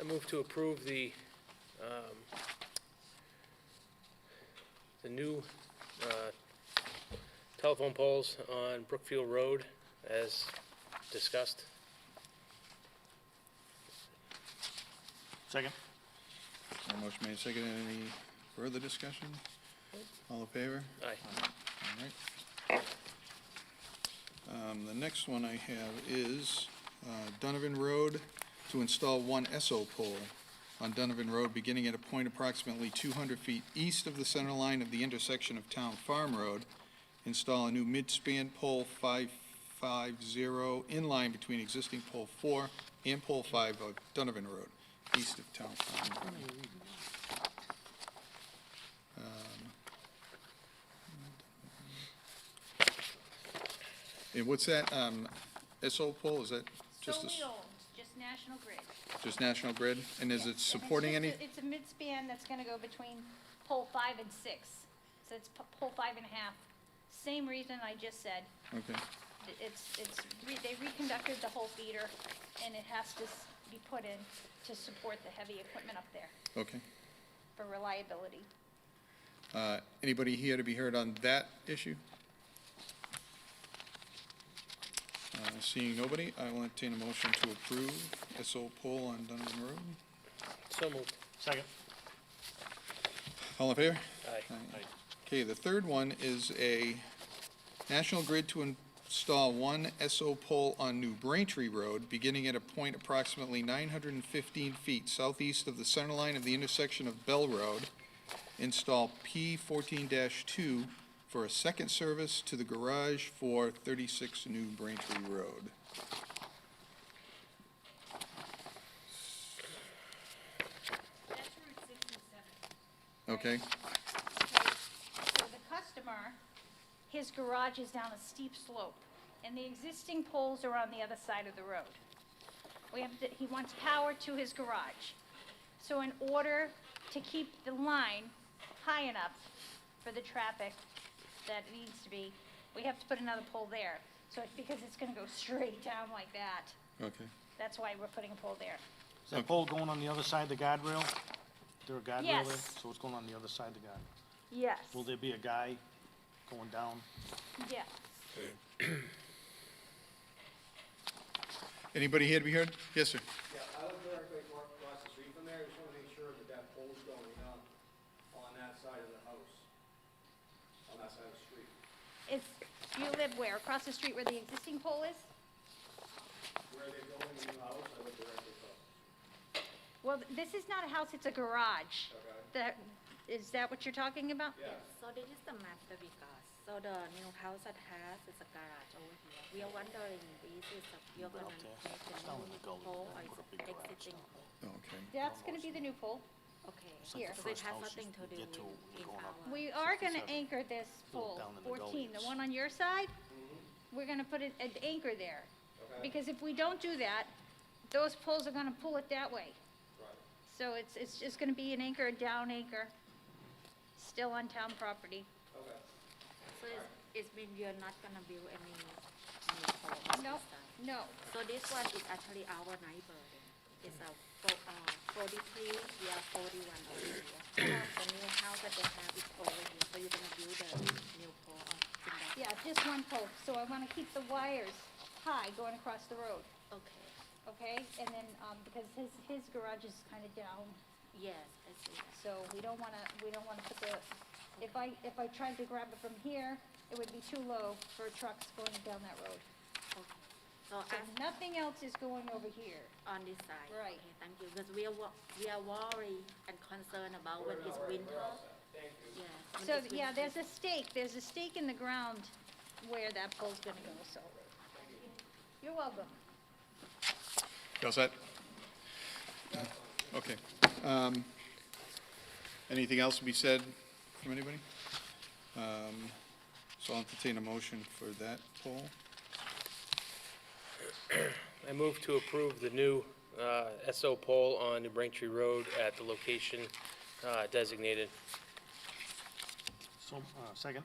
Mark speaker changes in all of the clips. Speaker 1: I move to approve the, um, the new uh, telephone poles on Brookfield Road as discussed.
Speaker 2: Second.
Speaker 3: Uh, Motion made, seconded. Any further discussion? All in favor?
Speaker 1: Aye.
Speaker 3: All right. Um, The next one I have is uh, Donovan Road to install one SO pole on Donovan Road, beginning at a point approximately 200 feet east of the center line of the intersection of Town Farm Road. Install a new midspan pole 550 in line between existing pole 4 and pole 5 of Donovan Road, east of Town Farm Road. And what's that um, SO pole? Is that just a...
Speaker 4: Solely owned, just National Grid.
Speaker 3: Just National Grid, and is
Speaker 4: Yes, and
Speaker 3: it
Speaker 4: it's
Speaker 3: supporting
Speaker 4: just
Speaker 3: any,
Speaker 4: a- It's a midspan that's gonna go between pole five and six, so it's p- pole five and a half. Same reason I just said,
Speaker 3: okay,
Speaker 4: It- it's, it's, re- they reconducted the whole feeder, and it has to s- be put in to support the heavy equipment up there
Speaker 3: okay.
Speaker 4: for reliability.
Speaker 3: Uh, Anybody here to be heard on that issue? Uh, Seeing nobody, I will entertain a motion to approve SO poll on Donovan Road.
Speaker 1: So moved.
Speaker 2: Second.
Speaker 3: All in favor?
Speaker 1: Aye.
Speaker 3: Okay, the third one is a National Grid to install one SO pole on New Braintree Road, beginning at a point approximately 915 feet southeast of the center line of the intersection of Bell Road. Install P14-2 for a second service to the garage for 36 New Braintree Road.
Speaker 4: That's Route six and seven.
Speaker 3: Okay,
Speaker 4: So the customer, his garage is down a steep slope, and the existing poles are on the other side of the road. We have, to- he wants power to his garage. So in order to keep the line high enough for the traffic that it needs to be, we have to put another pole there. So it's because it's gonna go straight down like that,
Speaker 3: okay.
Speaker 4: that's why we're putting a pole there.
Speaker 2: Is that pole going on the other side of the guardrail? Is there a guardrail there?
Speaker 4: Yes.
Speaker 2: So it's going on the other side of the guard.
Speaker 4: Yes.
Speaker 2: Will there be a guy going down?
Speaker 4: Yes.
Speaker 3: Anybody here to be heard? Yes, sir.
Speaker 5: Yeah, I live directly acro- across the street from there, I just wanna make sure that that pole's going up on that side of the house, on that side of the street.
Speaker 4: It's, you live where, across the street where the existing pole is?
Speaker 5: Where they're going in the house, I live directly across.
Speaker 4: Well, th- this is not a house, it's a garage. That, is that what you're talking about?
Speaker 5: Yeah.
Speaker 6: So this is the map that we got. So the new house that has is a garage over here. We are wondering, this is, a- you're gonna make the
Speaker 2: down in
Speaker 6: new
Speaker 2: the gully,
Speaker 6: pole
Speaker 2: then
Speaker 6: or
Speaker 2: put a big
Speaker 6: is
Speaker 2: garage
Speaker 6: existing?
Speaker 3: Okay.
Speaker 4: That's gonna be the new pole.
Speaker 2: Uh,
Speaker 6: Okay.
Speaker 2: It's like
Speaker 6: So
Speaker 2: the
Speaker 4: Here.
Speaker 6: it
Speaker 2: first house
Speaker 6: has
Speaker 2: you
Speaker 6: nothing to do
Speaker 2: get
Speaker 6: with
Speaker 2: to when
Speaker 6: in
Speaker 2: you're going up.
Speaker 6: our.
Speaker 4: We are gonna
Speaker 2: 67.
Speaker 4: anchor this pole,
Speaker 2: down in the
Speaker 4: fourteen, the
Speaker 2: gullies.
Speaker 4: one on your side.
Speaker 5: Mm-hmm.
Speaker 4: We're gonna put an, an anchor there. Because if we don't do that, those poles are gonna pull it that way.
Speaker 5: Right.
Speaker 4: So it's, it's just gonna be an anchor, a down anchor, still on town property.
Speaker 5: Okay.
Speaker 6: So it's, it's mean you're not gonna build any new pole on
Speaker 4: No,
Speaker 6: this side.
Speaker 4: no,
Speaker 6: So this one is actually our neighbor. then. It's a fo- uh, forty-three, we are forty-one over here. The new house that they have is over here, so you're gonna build the new pole on in that
Speaker 4: yeah, just one pole, so I wanna keep the wires high going across the road.
Speaker 6: Okay,
Speaker 4: Okay, and then, um, because his, his garage is kind of down,
Speaker 6: yes, I see that.
Speaker 4: so we don't wanna, we don't wanna put the, if I, if I tried to grab it from here, it would be too low for trucks going down that road.
Speaker 6: Okay. So
Speaker 4: So
Speaker 6: as
Speaker 4: nothing else is going over here.
Speaker 6: on this side.
Speaker 4: Right.
Speaker 6: Okay, thank you, because we are, wo- we are worried and concerned about when it's winter. Yes. when
Speaker 4: So,
Speaker 6: it's
Speaker 4: yeah,
Speaker 6: winter.
Speaker 4: there's a stake, there's a stake in the ground where that pole's gonna go, so. You're welcome.
Speaker 3: You all set? Okay. Um, Anything else to be said from anybody? Um, So I'll entertain a motion for that poll.
Speaker 1: I move to approve the new uh, SO pole on New Braintree Road at the location uh, designated.
Speaker 2: So, uh, second.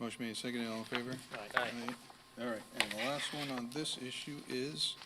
Speaker 3: Motion made, seconded, all in favor?
Speaker 2: All right.
Speaker 1: Aye.
Speaker 3: All right, and the last one on this issue is